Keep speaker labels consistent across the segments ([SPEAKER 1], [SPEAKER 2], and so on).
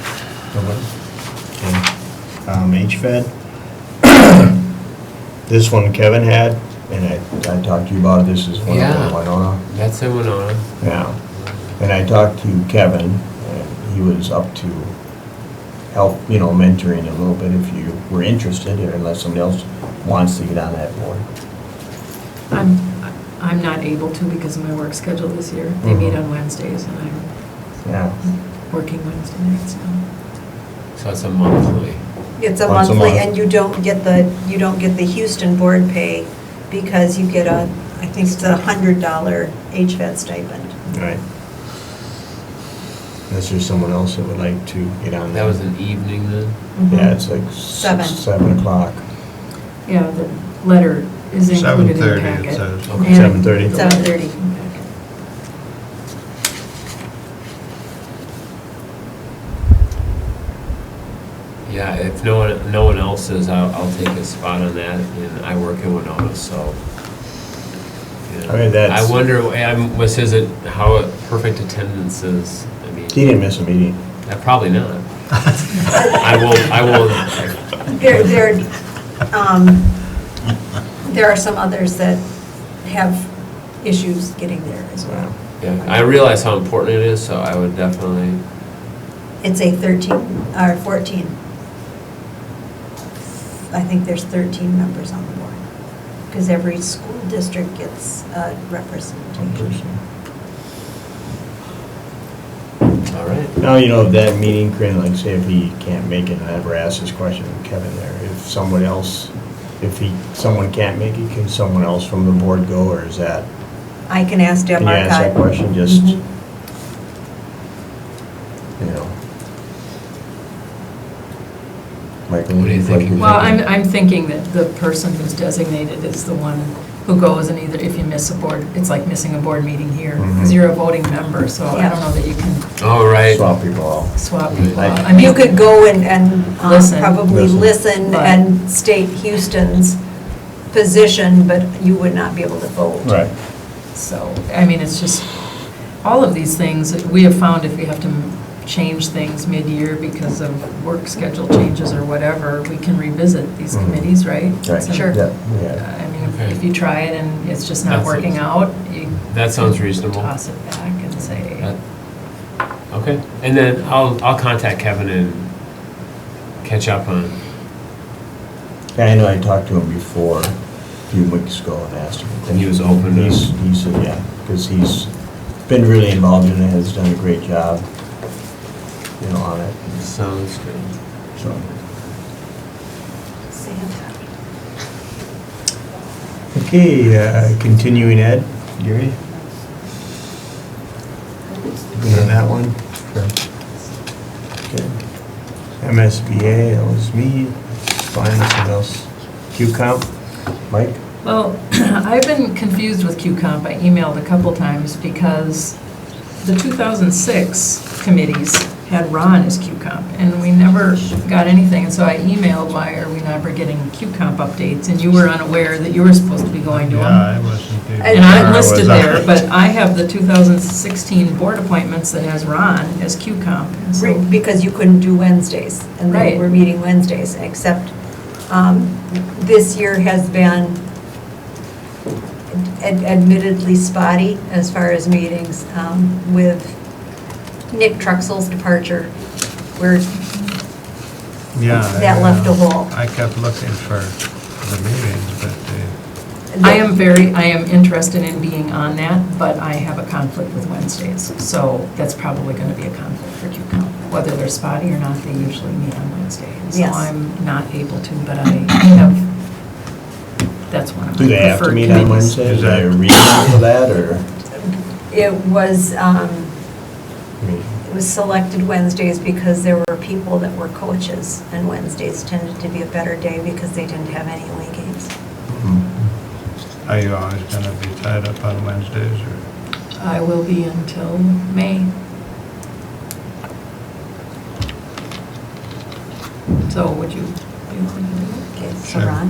[SPEAKER 1] October. Okay. Um, HVAC, this one Kevin had, and I, I talked to you about it, this is one of
[SPEAKER 2] Yeah.
[SPEAKER 1] the Winona.
[SPEAKER 2] That's a Winona.
[SPEAKER 1] Yeah. And I talked to Kevin, and he was up to help, you know, mentoring a little bit if you were interested, or unless somebody else wants to get on that board.
[SPEAKER 3] I'm, I'm not able to because of my work schedule this year. They meet on Wednesdays and I'm
[SPEAKER 1] Yeah.
[SPEAKER 2] Mm-hmm.
[SPEAKER 3] working Wednesday nights now.
[SPEAKER 2] So it's a monthly.
[SPEAKER 4] It's a
[SPEAKER 1] Once a
[SPEAKER 4] monthly,
[SPEAKER 1] month.
[SPEAKER 4] and you don't get the, you don't get the Houston board pay because you get a, I think it's a hundred dollar HVAC stipend.
[SPEAKER 1] Right. Unless there's someone else that would like to get on
[SPEAKER 2] That
[SPEAKER 1] that.
[SPEAKER 2] was an e- Mm-hmm. evening then?
[SPEAKER 1] Yeah, it's like
[SPEAKER 4] Seven.
[SPEAKER 1] six, seven o'clock.
[SPEAKER 3] Yeah, the letter is included in the
[SPEAKER 5] 7:30 it
[SPEAKER 3] packet.
[SPEAKER 5] says.
[SPEAKER 2] Okay.
[SPEAKER 1] 7:30.
[SPEAKER 4] Seven thirty.
[SPEAKER 2] Yeah, if no one, no one else is, I'll, I'll take a spot on that, and I work in Winona, so. you know.
[SPEAKER 1] I mean, that's-
[SPEAKER 2] I wonder, um, was his, how a perfect attendance is, I mean,
[SPEAKER 1] He didn't miss a meeting.
[SPEAKER 2] uh, probably not. I will, I will,
[SPEAKER 4] There, there, um, there are some others that have issues getting there as well.
[SPEAKER 2] yeah, I realize how important it is, so I would definitely,
[SPEAKER 4] It's a thirteen, or fourteen. I think there's thirteen members on the board, because every school district gets a
[SPEAKER 1] One
[SPEAKER 4] representation.
[SPEAKER 1] person.
[SPEAKER 2] all right.
[SPEAKER 1] Now, you know, if that meeting, Corinne, like say if he can't make it, and I ever asked this question of Kevin there, if someone else, if he, someone can't make it, can someone else from the board go, or is that?
[SPEAKER 4] I can ask Deb
[SPEAKER 1] Can you
[SPEAKER 4] Marcotte.
[SPEAKER 1] ask that question, just,
[SPEAKER 3] Mm-hmm.
[SPEAKER 4] Mhm.
[SPEAKER 1] you know? Michael?
[SPEAKER 2] What do you think?
[SPEAKER 1] like
[SPEAKER 3] Well, I'm, I'm thinking that the person who's designated is the one who goes and either, if you miss a board, it's like missing a board meeting here, because
[SPEAKER 1] Mhm.
[SPEAKER 3] you're a voting member, so I don't know that you can
[SPEAKER 2] All right.
[SPEAKER 1] Swap people out.
[SPEAKER 3] swap people
[SPEAKER 2] Right.
[SPEAKER 3] out. I mean-
[SPEAKER 4] You could go and, and um,
[SPEAKER 3] Listen.
[SPEAKER 4] probably
[SPEAKER 1] Listen.
[SPEAKER 4] listen
[SPEAKER 3] Right.
[SPEAKER 4] and state Houston's position, but you would not be able to vote.
[SPEAKER 1] Right.
[SPEAKER 3] So, I mean, it's just, all of these things, we have found if we have to m- change things mid-year because of work schedule changes or whatever, we can revisit these
[SPEAKER 1] Mhm.
[SPEAKER 3] committees, right? So,
[SPEAKER 1] Right.
[SPEAKER 4] Sure.
[SPEAKER 1] Yeah, yeah.
[SPEAKER 3] I mean, if-
[SPEAKER 2] Okay.
[SPEAKER 3] if you try it and it's just not
[SPEAKER 2] That's it.
[SPEAKER 3] working out, you.
[SPEAKER 2] That sounds reasonable.
[SPEAKER 3] Toss it back and say,
[SPEAKER 2] That- Uh, Okay, and then I'll, I'll contact Kevin and catch up on,
[SPEAKER 1] Yeah, I know, I talked to him before, a few weeks ago, and asked him.
[SPEAKER 2] And he was open to-
[SPEAKER 1] He's- He said, yeah, because he's been really involved in it, has done a great job, you know, on it,
[SPEAKER 2] sounds good.
[SPEAKER 1] so.
[SPEAKER 4] Santa.
[SPEAKER 1] Okay, uh, continuing ed, Gary? Good on that one? Okay. MSBA, that was me, fine, something else. QComp? Mike?
[SPEAKER 3] well, I've been confused with QComp, I emailed a couple times because the 2006 committees had Ron as QComp, and we never got anything, and so I emailed, why are we never getting QComp updates? And you were unaware that you were supposed to be going to them.
[SPEAKER 5] Yeah, I wasn't. even
[SPEAKER 3] And I'm
[SPEAKER 5] sure I was
[SPEAKER 3] listed
[SPEAKER 5] on
[SPEAKER 3] there,
[SPEAKER 5] it.
[SPEAKER 3] but I have the 2016 board appointments that has Ron as QComp. and so-
[SPEAKER 4] Right, Because you couldn't do Wednesdays, and
[SPEAKER 3] Right.
[SPEAKER 4] they were meeting Wednesdays, except um, this year has been ad- admittedly spotty as far as meetings um, with Nick Truxel's departure. We're
[SPEAKER 5] Yeah.
[SPEAKER 4] that
[SPEAKER 5] I,
[SPEAKER 4] left a
[SPEAKER 5] uh,
[SPEAKER 4] hole.
[SPEAKER 5] I kept looking for the meetings, but they,
[SPEAKER 3] I am very, I am interested in being on that, but I have a conflict with Wednesdays. So that's probably going to be a conflict for QComp. Whether they're spotty or not, they usually meet on Wednesday. And So
[SPEAKER 4] Yes.
[SPEAKER 3] I'm not able to, but I have, that's one of my
[SPEAKER 1] Do they have to
[SPEAKER 3] preferred
[SPEAKER 1] meet on
[SPEAKER 3] committees.
[SPEAKER 1] Wednesday? Is
[SPEAKER 5] Is that-
[SPEAKER 1] there a reason for that, or?
[SPEAKER 4] It was, um,
[SPEAKER 1] I mean,
[SPEAKER 4] It was selected Wednesdays because there were people that were coaches, and Wednesdays tended to be a better day because they didn't have any away games.
[SPEAKER 1] Mm-hmm.
[SPEAKER 5] are you always going to be tied up on Wednesdays or?
[SPEAKER 3] I will be until May. So would you be willing to do it?
[SPEAKER 4] Okay, so
[SPEAKER 5] Sure.
[SPEAKER 4] Ron?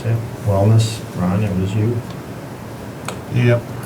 [SPEAKER 1] Okay, wellness, Ron, it was you.
[SPEAKER 5] Yep.